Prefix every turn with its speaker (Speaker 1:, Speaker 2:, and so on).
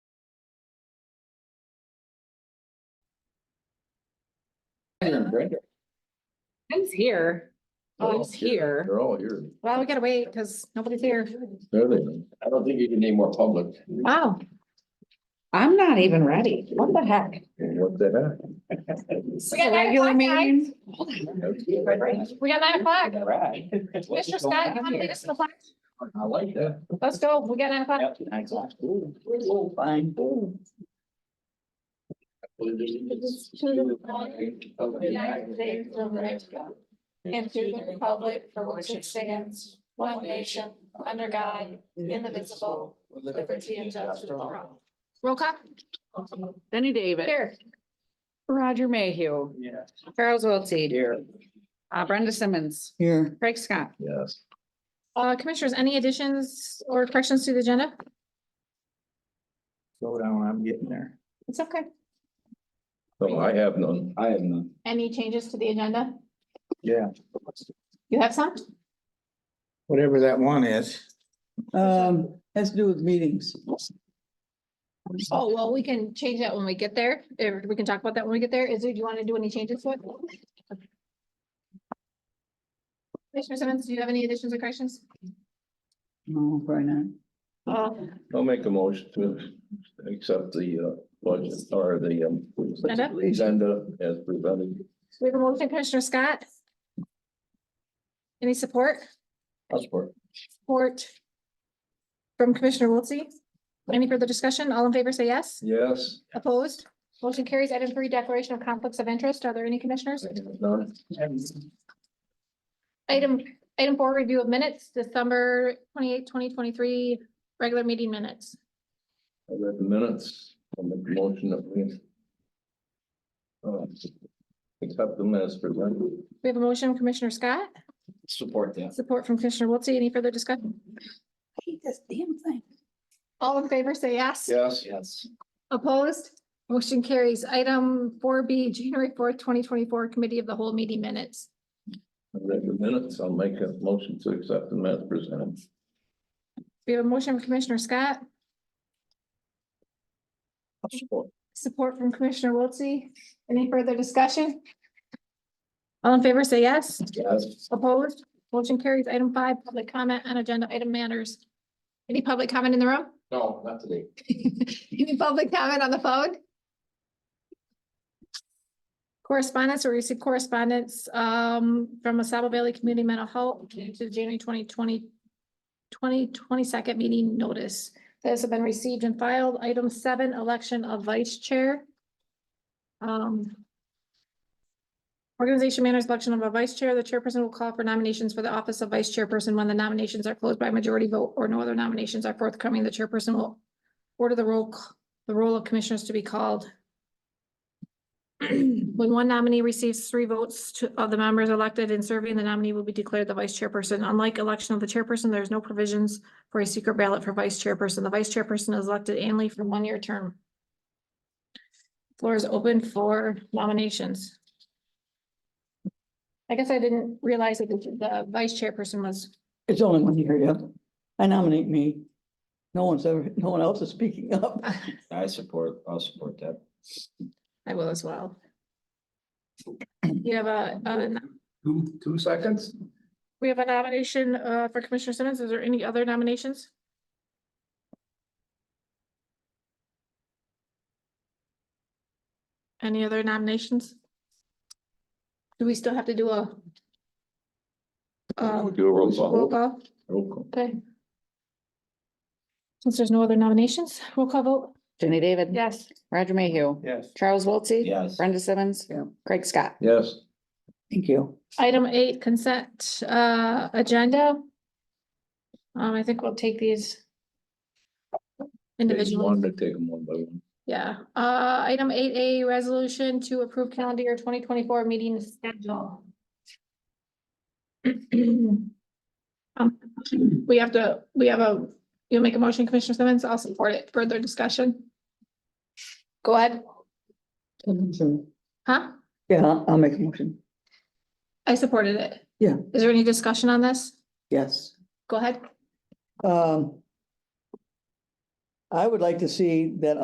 Speaker 1: Here, Brenda.
Speaker 2: Who's here?
Speaker 1: They're all
Speaker 2: Who's here?
Speaker 1: They're all here.
Speaker 2: Oh, Well, we gotta wait because nobody's here.
Speaker 1: There they go. I don't think you can name more public.
Speaker 2: Wow. I'm not even ready. What the heck?
Speaker 1: What the
Speaker 2: It's
Speaker 3: got
Speaker 2: a regular
Speaker 3: nine o'clock,
Speaker 2: meeting.
Speaker 1: heck?
Speaker 3: We got nine o'clock.
Speaker 1: All right.
Speaker 3: Mr. Scott, you want to lead us to the flag?
Speaker 1: I like that.
Speaker 3: Let's go. We got nine o'clock.
Speaker 1: Oh, fine.
Speaker 3: And to the republic for which it stands, one nation, under God, indivisible, liberty and justice for all.
Speaker 2: Roll call. Benny David.
Speaker 3: Here.
Speaker 2: Roger Mayhew.
Speaker 1: Yeah.
Speaker 2: Charles Wiltie. Here. Uh, Brenda Simmons.
Speaker 4: Here,
Speaker 2: Craig Scott.
Speaker 1: Yes.
Speaker 3: Uh, commissioners, any additions or corrections to the agenda?
Speaker 4: slow down, I'm getting there.
Speaker 3: It's okay.
Speaker 1: No, I have none. I have none.
Speaker 3: Any changes to the agenda?
Speaker 4: Yeah.
Speaker 3: You have some?
Speaker 4: Whatever that one is. Um, has to do with meetings.
Speaker 3: Oh, well, we can change that when we get there. Or we can talk about that when we get there. Is, do you want to do any changes to it? Commissioner Simmons, do you have any additions or corrections? Uh,
Speaker 4: No, probably not.
Speaker 3: Agenda?
Speaker 1: I'll make a motion to accept the uh budget or the um. Agenda as presented.
Speaker 3: We have a motion, Commissioner Scott. Any support?
Speaker 1: I'll support.
Speaker 3: Support from Commissioner Wiltse? Any further discussion? All in favor, say yes.
Speaker 1: Yes.
Speaker 3: Opposed? Motion carries. Item three, declaration of conflicts of interest. Are there any commissioners?
Speaker 1: None.
Speaker 3: Item, item four, review of minutes, December twenty-eight, twenty twenty-three, regular meeting minutes.
Speaker 1: I read the minutes on the motion that we. uh, Accept them as presented.
Speaker 3: We have a motion, from Commissioner Scott,
Speaker 1: Support that.
Speaker 3: support from Commissioner Wiltse. Any further discussion?
Speaker 4: Hate this damn thing.
Speaker 3: All in favor, say yes.
Speaker 1: Yes. Yes.
Speaker 3: Opposed? Motion carries. Item four B, January fourth, twenty twenty-four, Committee of the Whole Meeting Minutes.
Speaker 1: I read the minutes. I'll make a motion to accept them as presented.
Speaker 3: We have a motion from Commissioner Scott,
Speaker 1: Support.
Speaker 3: support from Commissioner Wiltse. Any further discussion? All in favor, say yes.
Speaker 1: Yes.
Speaker 3: Opposed? Motion carries. Item five, public comment on agenda item matters. Any public comment in the room?
Speaker 1: No, not today.
Speaker 3: Any public comment on the phone? Correspondence, we received correspondence um from Asaba Valley Community Mental Health to the January 2020 2022 meeting notice. This has been received and filed. Item seven, election of vice chair. Um. Organization manager's election of a vice chair. The chairperson will call for nominations for the office of vice chairperson when the nominations are closed by majority vote or no other nominations are forthcoming. The chairperson will order the roll, c- the roll of commissioners to be called. When one nominee receives three votes to- of the members elected and serving, the nominee will be declared the vice chairperson. Unlike election of the chairperson, there is no provisions for a secret ballot for vice chairperson. The vice chairperson is elected annually for one-year term. Floor is open for nominations. I guess I didn't realize that the- the vice chairperson was,
Speaker 4: It's only one here, yeah. I nominate me. No one's ever, no one else is speaking up.
Speaker 5: I support, I'll support that.
Speaker 3: I will as well. You have a, a
Speaker 1: Two, two seconds?
Speaker 3: We have a nomination uh, for Commissioner Simmons. Is there any other nominations? Any other nominations? Do we still have to do a? uh,
Speaker 1: Do a roll call.
Speaker 3: Roll call,
Speaker 1: Roll call.
Speaker 3: okay. Since there's no other nominations, roll call vote?
Speaker 2: Jenny David.
Speaker 3: Yes.
Speaker 2: Roger Mayhew.
Speaker 4: Yes.
Speaker 2: Charles Wiltie.
Speaker 5: Yes.
Speaker 2: Brenda Simmons.
Speaker 4: Yeah.
Speaker 2: Craig Scott.
Speaker 1: Yes.
Speaker 4: Thank you.
Speaker 3: Item eight, consent uh, agenda. Um, I think we'll take these
Speaker 1: Individual.
Speaker 3: individually.
Speaker 1: Wanted to take them one by one.
Speaker 3: Yeah, uh, item eight A, resolution to approve calendar year twenty twenty-four meeting schedule. Um, We have to, we have a, you'll make a motion, Commissioner Simmons, I'll support it, further discussion. Go ahead, huh?
Speaker 4: Yeah, I'll- I'll make a motion.
Speaker 3: I supported it.
Speaker 4: Yeah.
Speaker 3: Is there any discussion on this?
Speaker 4: Yes.
Speaker 3: Go ahead.
Speaker 4: Um. I would like to see that